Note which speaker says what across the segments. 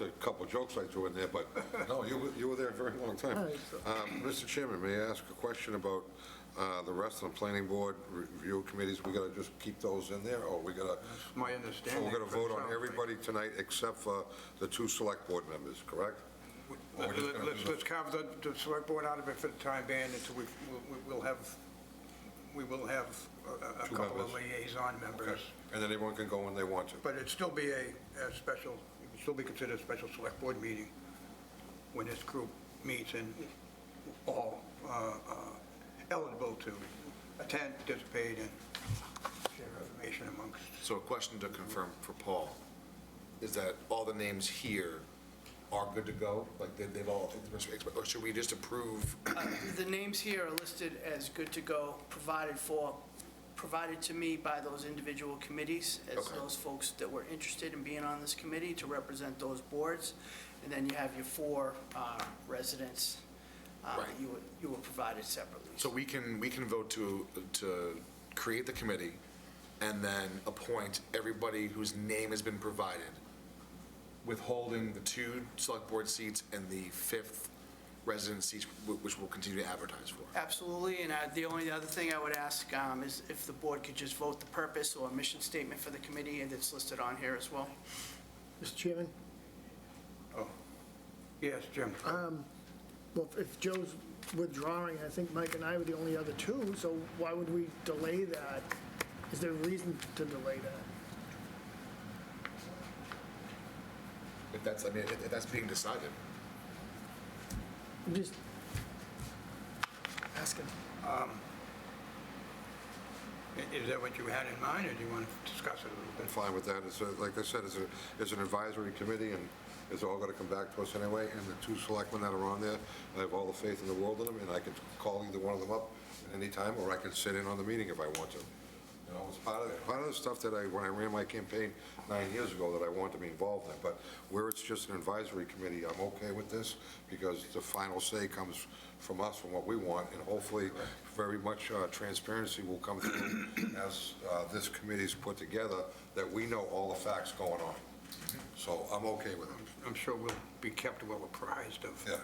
Speaker 1: A couple of jokes I threw in there, but no, you were, you were there a very long time. Um, Mr. Chairman, may I ask a question about uh, the rest of the planning board review committees? We gotta just keep those in there, or we gotta?
Speaker 2: My
Speaker 1: So
Speaker 2: understanding.
Speaker 1: we're gonna
Speaker 2: but it
Speaker 1: vote on
Speaker 2: sounds like-
Speaker 1: everybody tonight except for the two select board members, correct? Or we're just gonna do
Speaker 2: Let's,
Speaker 1: the-
Speaker 2: let's carve the, the select board out of it for the time being until we, we- we'll have, we will have a- a- a
Speaker 1: Two
Speaker 2: couple of
Speaker 1: members.
Speaker 2: liaison members.
Speaker 1: And then everyone can go when they want to.
Speaker 2: But it'd still be a, a special, it would still be considered a special select board meeting when this group meets and all uh, uh, eligible to attend, participate, and share information amongst.
Speaker 3: So a question to confirm for Paul, is that all the names here are good to go? Like, they- they've all, or should we just approve?
Speaker 4: The names here are listed as good to go, provided for, provided to me by those individual committees, as
Speaker 3: Okay.
Speaker 4: those folks that were interested in being on this committee to represent those boards. And then you have your four uh, residents uh, that
Speaker 3: Right.
Speaker 4: you were, you were provided separately.
Speaker 3: So we can, we can vote to, to create the committee and then appoint everybody whose name has been provided, withholding the two select board seats and the fifth resident seats, wh- which we'll continue to advertise for.
Speaker 4: Absolutely, and I- the only other thing I would ask um, is if the board could just vote the purpose or mission statement for the committee, and it's listed on here as well.
Speaker 5: Mr. Chairman,
Speaker 2: Yes, Jim?
Speaker 5: well, if Joe's withdrawing, I think Mike and I were the only other two, so why would we delay that? Is there a reason to delay that?
Speaker 3: If that's, I mean, if if that's being decided.
Speaker 5: I'm just asking.
Speaker 2: I- Is that what you had in mind, or do you want to discuss it a little
Speaker 1: I'm
Speaker 2: bit?
Speaker 1: fine with that. It's, a- like I said, it's a, it's an advisory committee, and it's all gonna come back to us anyway, and the two selectmen that are on there, I have all the faith in the world in them, and I can call either one of them up at any time, or I can sit in on the meeting if I want to. You know, it's part of, part of the stuff that I, when I ran my campaign nine years ago, that I wanted to be involved in, but where it's just an advisory committee, I'm okay with this, because the final say comes from us, from what we want, and hopefully, very much uh, transparency will come through as uh, this committee's put together, that we know all the facts going on. So I'm okay with it,
Speaker 2: I'm sure we'll be kept well apprised of.
Speaker 1: yeah.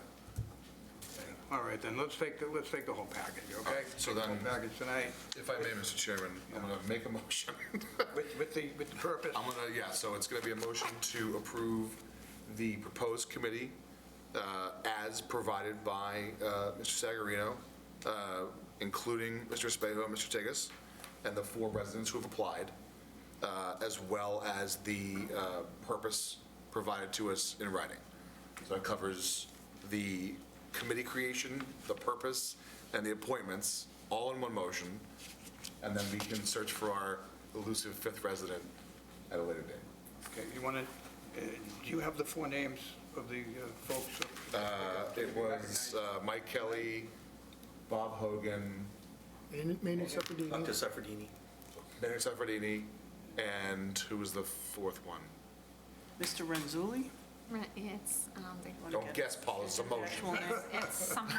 Speaker 2: All right, then, let's take, the let's take the whole package, okay?
Speaker 3: So
Speaker 2: Take the
Speaker 3: then-
Speaker 2: whole package tonight,
Speaker 3: If I may, Mr. Chairman, I'm going to make a motion.
Speaker 2: with with the, with the purpose,
Speaker 3: I'm gonna, yeah, so it's gonna be a motion to approve the proposed committee uh, as provided by uh, Mr. Sagarino, uh, including Mr. Espejo and Mr. Tigas, and the four residents who have applied, uh, as well as the uh, purpose provided to us in writing. So it covers the committee creation, the purpose, and the appointments, all in one motion, and then we can search for our elusive fifth resident at a later date.
Speaker 2: okay, you want to, do you have the four names of the uh, folks?
Speaker 3: Uh, It was uh, Mike Kelly, Bob Hogan,
Speaker 5: Manu- Manu Sepulveda,
Speaker 6: Dr. Seferdini.
Speaker 3: Benny Saffredini, and who was the fourth one?
Speaker 4: Mr. Renzulli?
Speaker 7: Right, It's, um, they-
Speaker 3: Don't guess, Paul, it's a
Speaker 4: Actual
Speaker 3: motion.
Speaker 4: name?
Speaker 7: it's something,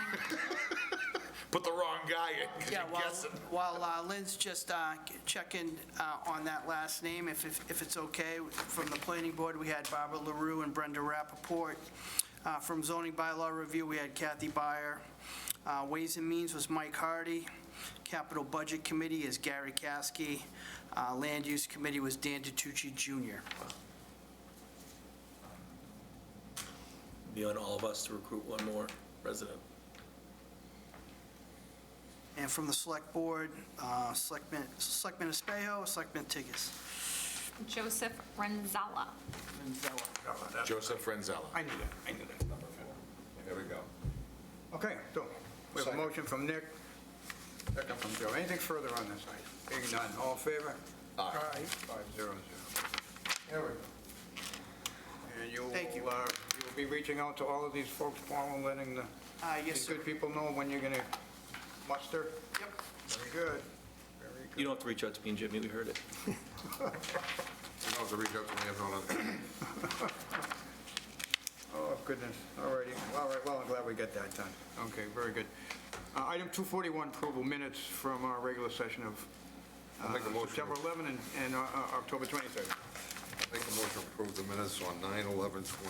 Speaker 3: Put the wrong guy in, 'cause
Speaker 4: Yeah,
Speaker 3: you're
Speaker 4: while,
Speaker 3: guessing.
Speaker 4: while uh, Lynn's just uh, checking uh, on that last name, if, if if it's okay, from the planning board, we had Barbara LaRue and Brenda Rappaport. Uh, From zoning bylaw review, we had Kathy Byer. Uh, Ways and Means was Mike Hardy. Capital Budget Committee is Gary Caskey. Uh, Land Use Committee was Dan DiTucci Jr.
Speaker 6: Be on all of us to recruit one more resident.
Speaker 4: And from the select board, uh, Selectman Selectman Espejo, Selectman Tigas.
Speaker 7: Joseph Renzella.
Speaker 4: Renzella.
Speaker 3: Joseph Renzella.
Speaker 2: I knew that, I knew that.
Speaker 3: There we go.
Speaker 2: Okay, so, we have a motion from Nick, second from Joe. Anything further on this item? Being none, all in favor? Aye. Five zero zero. There we go. And you will,
Speaker 4: Thank you.
Speaker 2: uh, you will be reaching out to all of these folks, Paul, and letting the
Speaker 4: Uh, Yes,
Speaker 2: These
Speaker 4: sir.
Speaker 2: good people know when you're going to muster?
Speaker 4: Yep.
Speaker 2: Very good. Very
Speaker 6: You don't have to reach out to me and Jimmy, we heard it.
Speaker 1: You don't have to reach out to me, I'm not on-
Speaker 2: good. Oh, goodness. All righty. All right, well, I'm glad we got that done. Okay, very good. Uh, Item 241, approval minutes from our regular session of
Speaker 1: I'll
Speaker 2: uh,
Speaker 1: make a motion.
Speaker 2: September 11 and- and uh, uh, October 23rd.
Speaker 1: make a motion to approve the minutes on 9/11/20.